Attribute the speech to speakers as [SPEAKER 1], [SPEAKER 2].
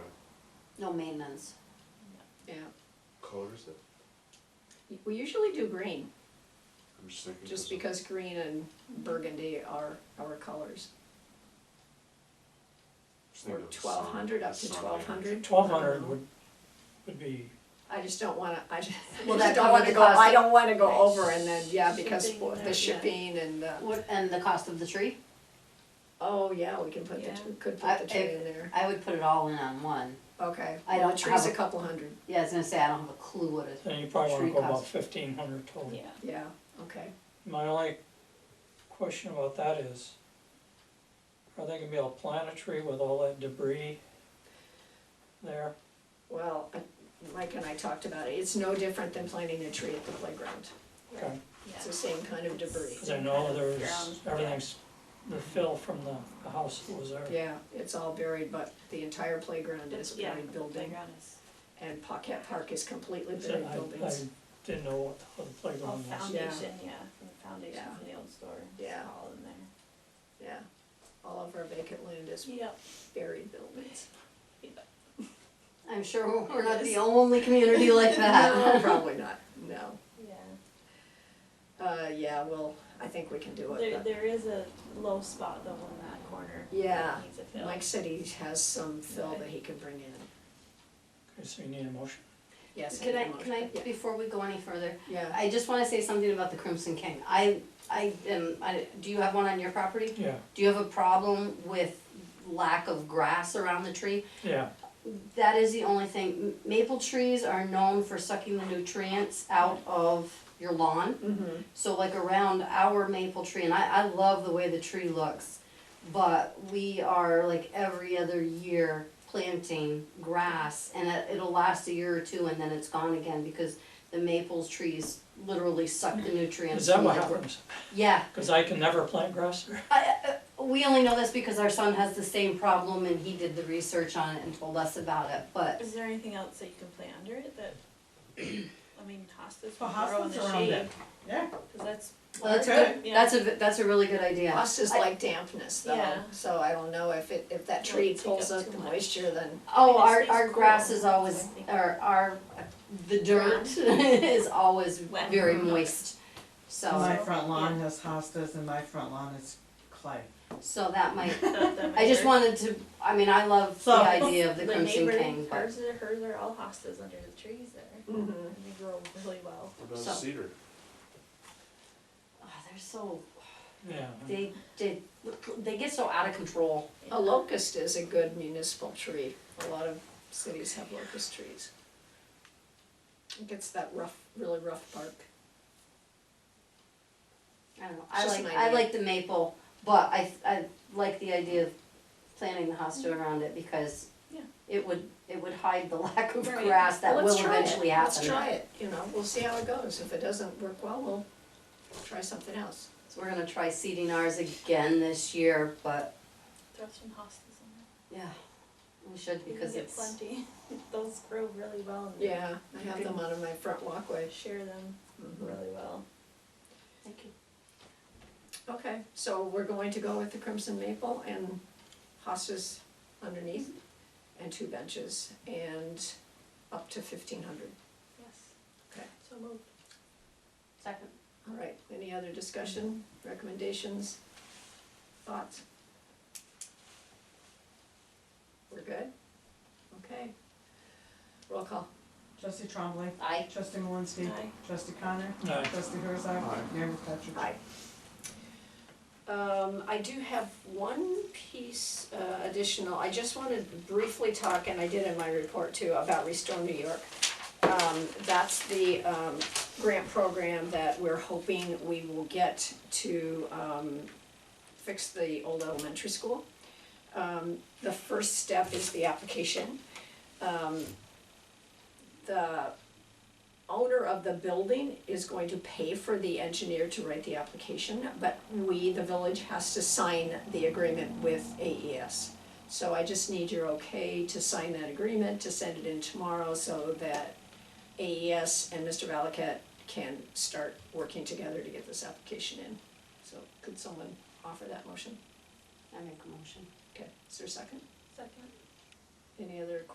[SPEAKER 1] No maintenance.
[SPEAKER 2] yeah.
[SPEAKER 3] Color is it?
[SPEAKER 2] We usually do green,
[SPEAKER 3] I'm just thinking.
[SPEAKER 2] just
[SPEAKER 3] of-
[SPEAKER 2] because green and burgundy are our colors.
[SPEAKER 3] just
[SPEAKER 2] Or
[SPEAKER 3] thinking of the sun-
[SPEAKER 2] twelve hundred, up to
[SPEAKER 3] sunlight.
[SPEAKER 2] twelve hundred.
[SPEAKER 4] Twelve hundred would, would be,
[SPEAKER 2] I just don't wanna, I just,
[SPEAKER 1] Well,
[SPEAKER 2] I
[SPEAKER 1] that
[SPEAKER 2] just don't
[SPEAKER 1] covered
[SPEAKER 2] wanna
[SPEAKER 1] the
[SPEAKER 2] go,
[SPEAKER 1] cost
[SPEAKER 2] I
[SPEAKER 1] of-
[SPEAKER 2] don't wanna go
[SPEAKER 1] Right.
[SPEAKER 2] over and then, yeah, because
[SPEAKER 5] Shipping
[SPEAKER 2] for
[SPEAKER 5] and
[SPEAKER 2] the
[SPEAKER 5] that, yeah.
[SPEAKER 2] shipping and, uh,
[SPEAKER 1] What, and the cost of the tree?
[SPEAKER 2] oh, yeah, we can put the,
[SPEAKER 5] Yeah.
[SPEAKER 2] we could
[SPEAKER 1] I-
[SPEAKER 2] put the tree
[SPEAKER 1] if-
[SPEAKER 2] in there.
[SPEAKER 1] I would put it all in on one.
[SPEAKER 2] Okay,
[SPEAKER 1] I
[SPEAKER 2] well, the
[SPEAKER 1] don't
[SPEAKER 2] tree's a
[SPEAKER 1] have a-
[SPEAKER 2] couple hundred,
[SPEAKER 1] Yeah, I was gonna say, I don't have a clue what it,
[SPEAKER 4] then you probably wanna
[SPEAKER 1] Tree
[SPEAKER 4] go about
[SPEAKER 1] cost.
[SPEAKER 4] fifteen hundred total.
[SPEAKER 5] Yeah,
[SPEAKER 2] yeah, okay.
[SPEAKER 4] My only question about that is, are they gonna be able to plant a tree with all that debris there?
[SPEAKER 2] Well, I- Mike and I talked about it, it's no different than planting a tree at the playground.
[SPEAKER 4] Okay,
[SPEAKER 2] It's the same kind of debris.
[SPEAKER 4] cause I know there's,
[SPEAKER 5] Ground, yeah.
[SPEAKER 4] everything's, the fill from the, the house that was there.
[SPEAKER 2] Yeah, it's all buried, but the entire playground is
[SPEAKER 5] Yeah,
[SPEAKER 2] buried building,
[SPEAKER 5] playground is,
[SPEAKER 2] and Paquette Park is completely
[SPEAKER 4] So
[SPEAKER 2] buried
[SPEAKER 4] I-
[SPEAKER 2] buildings.
[SPEAKER 4] I didn't know what the whole
[SPEAKER 5] oh,
[SPEAKER 4] playground was.
[SPEAKER 5] foundation, yeah, from the foundation
[SPEAKER 2] Yeah.
[SPEAKER 5] from the old store, it's
[SPEAKER 2] Yeah.
[SPEAKER 5] all in there.
[SPEAKER 2] Yeah, all of our vacant land is
[SPEAKER 5] Yep,
[SPEAKER 2] buried buildings.
[SPEAKER 1] I'm sure we're not the
[SPEAKER 5] Yes.
[SPEAKER 1] only community like
[SPEAKER 2] No,
[SPEAKER 1] that.
[SPEAKER 2] probably not, no.
[SPEAKER 5] yeah,
[SPEAKER 2] Uh, yeah, well, I think we can do
[SPEAKER 5] there,
[SPEAKER 2] it,
[SPEAKER 5] there is a low spot though in that corner. that
[SPEAKER 2] Yeah,
[SPEAKER 5] Needs a
[SPEAKER 2] but
[SPEAKER 5] fill.
[SPEAKER 2] Mike said he has some fill that he can bring in.
[SPEAKER 4] Okay, so you need a motion.
[SPEAKER 2] Yes.
[SPEAKER 1] Can I,
[SPEAKER 2] need a
[SPEAKER 1] can I,
[SPEAKER 2] motion. Yeah,
[SPEAKER 1] before we go any further,
[SPEAKER 2] Yeah,
[SPEAKER 1] I just wanna say something about the Crimson King. I, I am, I, do you have one on your property?
[SPEAKER 4] Yeah,
[SPEAKER 1] Do you have a problem with lack of grass around the tree?
[SPEAKER 4] yeah,
[SPEAKER 1] That is the only thing. M- Maple trees are known for sucking the nutrients out of your lawn.
[SPEAKER 2] mhm,
[SPEAKER 1] So like around our maple tree, and I, I love the way the tree looks, but we are like every other year planting grass and it, it'll last a year or two and then it's gone again because the maples trees literally suck the nutrients.
[SPEAKER 4] is that
[SPEAKER 1] from
[SPEAKER 4] what
[SPEAKER 1] the gr-
[SPEAKER 4] happens?
[SPEAKER 1] Yeah,
[SPEAKER 4] Cause I can never plant grass there.
[SPEAKER 1] I, I, we only know this because our son has the same problem and he did the research on it and told us about it, but
[SPEAKER 5] Is there anything else that you can plant under it that, I mean, hostas
[SPEAKER 6] Well,
[SPEAKER 5] will grow in
[SPEAKER 6] hostas are
[SPEAKER 5] the
[SPEAKER 6] on
[SPEAKER 5] shade,
[SPEAKER 6] that, yeah.
[SPEAKER 5] cause that's.
[SPEAKER 1] well, that's a
[SPEAKER 6] Okay.
[SPEAKER 1] good,
[SPEAKER 5] Yeah.
[SPEAKER 1] that's a, that's a really good idea.
[SPEAKER 2] Us is
[SPEAKER 1] I-
[SPEAKER 2] like dampness though,
[SPEAKER 5] Yeah.
[SPEAKER 2] so I don't know if it, if that
[SPEAKER 5] Don't
[SPEAKER 2] tree
[SPEAKER 5] take up
[SPEAKER 2] pulls up
[SPEAKER 5] too
[SPEAKER 2] the
[SPEAKER 5] much.
[SPEAKER 2] moisture, then,
[SPEAKER 1] Oh,
[SPEAKER 5] It just
[SPEAKER 1] our,
[SPEAKER 5] stays
[SPEAKER 1] our grass
[SPEAKER 5] cool.
[SPEAKER 1] is always, or our, the dirt is always
[SPEAKER 5] Wet.
[SPEAKER 1] very moist.
[SPEAKER 6] My
[SPEAKER 1] So,
[SPEAKER 6] front lawn has hostas and my front lawn is clay.
[SPEAKER 1] so that might,
[SPEAKER 5] that- that
[SPEAKER 1] I just
[SPEAKER 5] might work.
[SPEAKER 1] wanted to, I mean, I love the
[SPEAKER 6] So-
[SPEAKER 1] idea of the Crimson
[SPEAKER 5] neighbor,
[SPEAKER 1] King, but
[SPEAKER 5] Hers are, hers are all hostas under the trees there,
[SPEAKER 2] mhm.
[SPEAKER 5] and they grow really well.
[SPEAKER 3] What about
[SPEAKER 1] So-
[SPEAKER 3] cedar?
[SPEAKER 1] oh, they're so,
[SPEAKER 4] Yeah.
[SPEAKER 1] they, they, they get so out of control.
[SPEAKER 2] A
[SPEAKER 5] Oh,
[SPEAKER 2] locust is a good municipal tree. A lot of cities have locust trees. It gets that rough, really rough bark.
[SPEAKER 1] I don't know,
[SPEAKER 2] It's
[SPEAKER 1] I
[SPEAKER 2] just
[SPEAKER 1] like,
[SPEAKER 2] an
[SPEAKER 1] I
[SPEAKER 2] idea.
[SPEAKER 1] like the maple, but I, I like the idea of planting the hosta around it because
[SPEAKER 5] Yeah.
[SPEAKER 1] it would, it would hide the lack of
[SPEAKER 5] Right.
[SPEAKER 1] grass that
[SPEAKER 2] Well,
[SPEAKER 1] will
[SPEAKER 2] let's try it.
[SPEAKER 1] eventually happen.
[SPEAKER 2] Let's try it, you know, we'll see how it goes. If it doesn't work well, we'll try something else.
[SPEAKER 1] So we're gonna try seeding ours again this year, but
[SPEAKER 5] Throw some hostas in there.
[SPEAKER 1] yeah, we should
[SPEAKER 5] You can
[SPEAKER 1] because
[SPEAKER 5] get
[SPEAKER 1] it's,
[SPEAKER 5] plenty, those grow really well and
[SPEAKER 2] Yeah, I have them on my front walkway.
[SPEAKER 5] share them
[SPEAKER 1] Mm-hmm.
[SPEAKER 5] really well.
[SPEAKER 1] Thank you.
[SPEAKER 2] Okay, so we're going to go with the crimson maple and hostas underneath and two benches and up to fifteen hundred.
[SPEAKER 5] Yes.
[SPEAKER 2] Okay.
[SPEAKER 5] So moved.
[SPEAKER 1] second.
[SPEAKER 2] All right, any other discussion, recommendations, thoughts? We're good? Okay. Roll call.
[SPEAKER 6] Trustee Trombley.
[SPEAKER 1] Aye.
[SPEAKER 6] Trustee Malinsky.
[SPEAKER 5] Aye.
[SPEAKER 6] Trustee Connor.
[SPEAKER 4] Aye.
[SPEAKER 6] Trustee Herzog.
[SPEAKER 3] Aye.
[SPEAKER 6] Mayor McFetrich.
[SPEAKER 2] Aye. Um, I do have one piece uh, additional, I just wanted to briefly talk, and I did in my report too, about Restore New York. Um, that's the, um, grant program that we're hoping we will get to, um, fix the old elementary school. Um, the first step is the application. Um, the owner of the building is going to pay for the engineer to write the application, but we, the village, has to sign the agreement with AES. So I just need your okay to sign that agreement, to send it in tomorrow so that AES and Mr. Valakat can start working together to get this application in. So could someone offer that motion?
[SPEAKER 1] I make a motion.
[SPEAKER 2] Okay, is there a second?
[SPEAKER 5] Second.
[SPEAKER 2] Any other